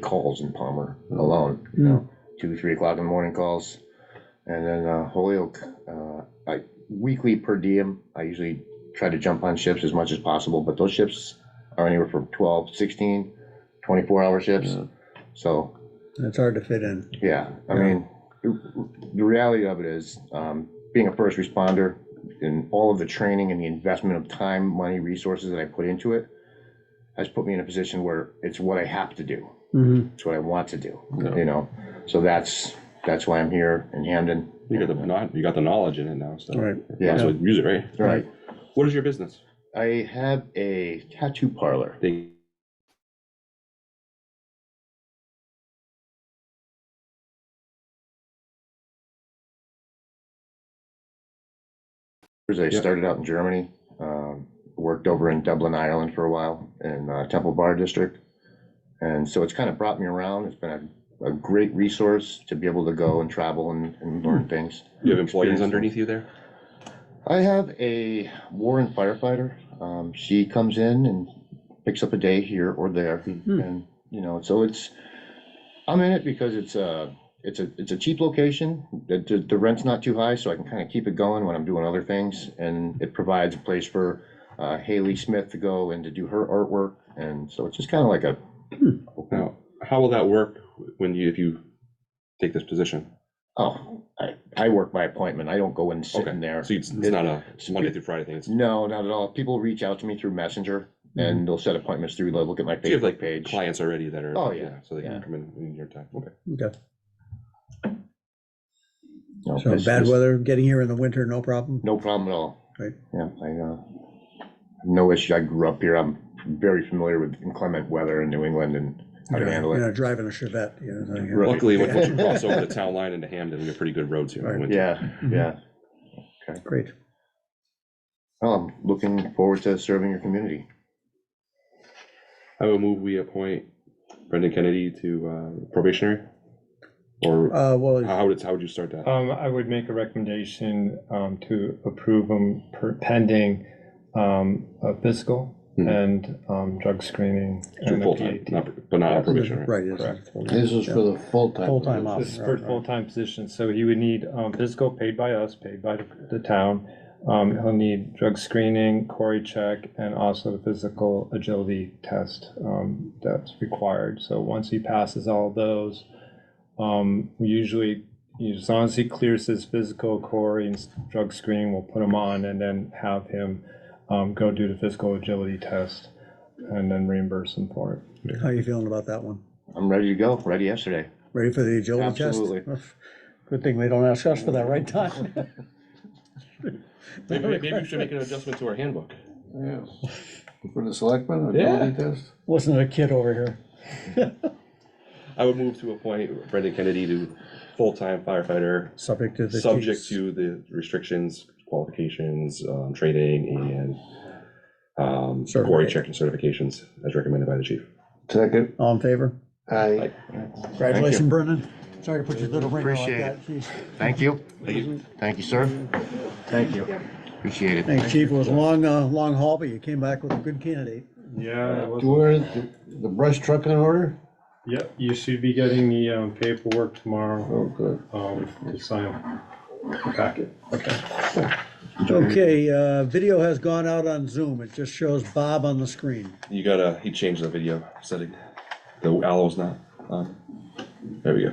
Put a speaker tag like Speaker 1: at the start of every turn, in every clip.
Speaker 1: calls in Palmer alone, you know, two, three o'clock in the morning calls. And then uh, Holyoke, uh, I weekly per diem, I usually try to jump on ships as much as possible, but those ships are anywhere from 12, 16, 24 hour ships.
Speaker 2: Yeah.
Speaker 1: So
Speaker 3: It's hard to fit in.
Speaker 1: yeah, I
Speaker 3: Yeah.
Speaker 1: mean, the the reality of it is, um, being a first responder and all of the training and the investment of time, money, resources that I put into it has put me in a position where it's what I have to do.
Speaker 3: Mhm.
Speaker 1: It's what I want to do,
Speaker 2: Yeah.
Speaker 1: you know? So that's, that's why I'm here in Hamden.
Speaker 2: You got the, kno- you got the knowledge in it now, so.
Speaker 3: Right.
Speaker 2: Might as
Speaker 1: Yeah.
Speaker 2: well use it, right?
Speaker 1: Right.
Speaker 2: What is your business?
Speaker 1: I have a tattoo parlor.
Speaker 2: They-
Speaker 1: I
Speaker 2: Yeah.
Speaker 1: started out in Germany, um, worked over in Dublin, Ireland for a while in uh, Temple Bar District. And so it's kind of brought me around. It's been a, a great resource to be able to go and travel and, and learn things.
Speaker 2: Hmm. You have employees
Speaker 1: Experience.
Speaker 2: underneath you there?
Speaker 1: I have a Warren firefighter. Um, she comes in and picks up a day here or there,
Speaker 2: Hmm.
Speaker 1: and you know, so it's. I'm in it because it's a it's a it's a cheap location. The, the, the rent's not too high, so I can kind of keep it going when I'm doing other things, and it provides a place for uh, Haley Smith to go and to do her artwork, and so it's just kind of like a.
Speaker 2: Now, how will that work when you, if you take this position?
Speaker 1: Oh, I, I work by appointment. I don't go and sit
Speaker 2: Okay.
Speaker 1: in there.
Speaker 2: So it's, it's not a
Speaker 1: It's-
Speaker 2: Monday through Friday thing, it's, do
Speaker 1: No, not at all. People reach out to me through Messenger
Speaker 3: Mm-hmm.
Speaker 1: and they'll set appointments through, they'll look at my
Speaker 2: you have
Speaker 1: Facebook
Speaker 2: like
Speaker 1: page.
Speaker 2: clients already that are?
Speaker 1: Oh, yeah.
Speaker 2: So they can
Speaker 1: Yeah.
Speaker 2: come in in your time, okay.
Speaker 3: Okay.
Speaker 1: No,
Speaker 3: So
Speaker 1: it's-
Speaker 3: bad
Speaker 1: it's
Speaker 3: weather, getting here in the winter, no problem.
Speaker 1: No problem at all.
Speaker 3: Right.
Speaker 1: Yeah, I, uh, no issue. I grew up here. I'm very familiar with inclement weather in New England and how to
Speaker 3: You're-
Speaker 1: handle
Speaker 3: You're
Speaker 1: it.
Speaker 3: not driving a Chevette, you know, like-
Speaker 1: Right.
Speaker 2: Luckily, when once you cross over the town line into Hamden, we have pretty good roads here in the
Speaker 3: Right.
Speaker 2: winter.
Speaker 1: Yeah,
Speaker 3: Mhm.
Speaker 1: yeah.
Speaker 3: Great.
Speaker 1: Well, I'm looking forward to serving your community.
Speaker 2: I will move we appoint Brendan Kennedy to uh, probationary? Or
Speaker 3: Uh, well,
Speaker 2: how would, how would you start
Speaker 1: uh,
Speaker 2: that?
Speaker 4: Um, I would make a recommendation, um, to approve them per- pending, um, a fiscal
Speaker 2: Mhm.
Speaker 4: and, um, drug screening.
Speaker 2: To
Speaker 4: and a
Speaker 2: full-time,
Speaker 4: PAT.
Speaker 2: not- but not on probation, right?
Speaker 3: right, yes.
Speaker 4: Correct.
Speaker 5: This is for the full-time.
Speaker 3: Full-time officer.
Speaker 4: This is for
Speaker 3: right, right.
Speaker 4: full-time position, so he would need, um, physical paid by us, paid by the, the town. Um, he'll need drug screening, query check, and also the physical agility test, um, that's required. So once he passes all those, um, usually, as long as he clears his physical query and s- drug screening, we'll put him on and then have him, um, go do the physical agility test and then reimburse him for it.
Speaker 3: How you feeling about that one?
Speaker 1: I'm ready to go, ready yesterday.
Speaker 3: Ready for the agility test?
Speaker 1: Absolutely.
Speaker 3: Good thing they don't ask us for that right time.
Speaker 2: Maybe, maybe we should make an adjustment to our handbook.
Speaker 5: Yes. For the selectmen,
Speaker 2: Yeah.
Speaker 5: ability test?
Speaker 3: Listen to the kid over here.
Speaker 2: I would move to appoint Brendan Kennedy to full-time firefighter,
Speaker 3: Subject to the.
Speaker 2: subject
Speaker 3: chief's-
Speaker 2: to the restrictions, qualifications, um, training, and um, quarry
Speaker 3: Certificate.
Speaker 2: check and certifications as recommended by the chief.
Speaker 5: Second,
Speaker 3: All in favor?
Speaker 5: aye.
Speaker 3: Congratulations, Brendan. Sorry to put your little ringer like
Speaker 1: Appreciate
Speaker 3: that.
Speaker 1: it.
Speaker 3: Jeez.
Speaker 1: Thank you. Thank you, sir. Thank you. Appreciate it.
Speaker 3: Thanks, chief. It was a long, uh, long haul, but you came back with a good candidate.
Speaker 4: Yeah,
Speaker 5: Do you order the- the brush truck in order?
Speaker 4: Yep, you should be getting the um, paperwork tomorrow,
Speaker 5: Oh, good.
Speaker 4: um, to sign the packet.
Speaker 3: Okay, uh, video has gone out on Zoom. It just shows Bob on the screen.
Speaker 2: You gotta, he changed the video setting. The aloe's not on. There we go.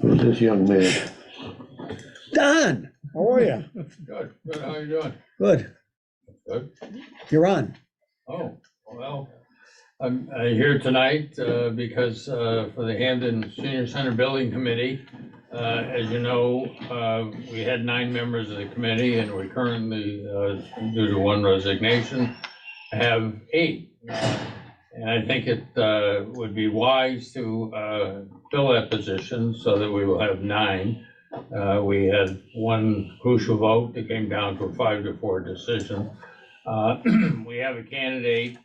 Speaker 5: Who's this young man?
Speaker 3: Don, how are you?
Speaker 6: Good, good, how you doing?
Speaker 3: Good.
Speaker 6: Good.
Speaker 3: You're on.
Speaker 6: Oh, well, I'm uh, here tonight uh, because uh, for the Hamden Senior Center Building Committee, uh, as you know, uh, we had nine members of the committee and we currently, uh, due to one resignation, have eight. Uh, And I think it uh, would be wise to uh, fill that position so that we will have nine. Uh, We had one crucial vote that came down to a five to four decision. Uh, We have a candidate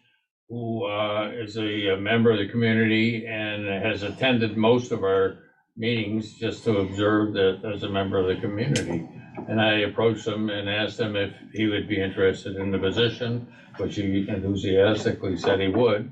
Speaker 6: who uh, is a uh, member of the community and has attended most of our meetings just to observe that as a member of the community. And I approached him and asked him if he would be interested in the position, which he enthusiastically said he would.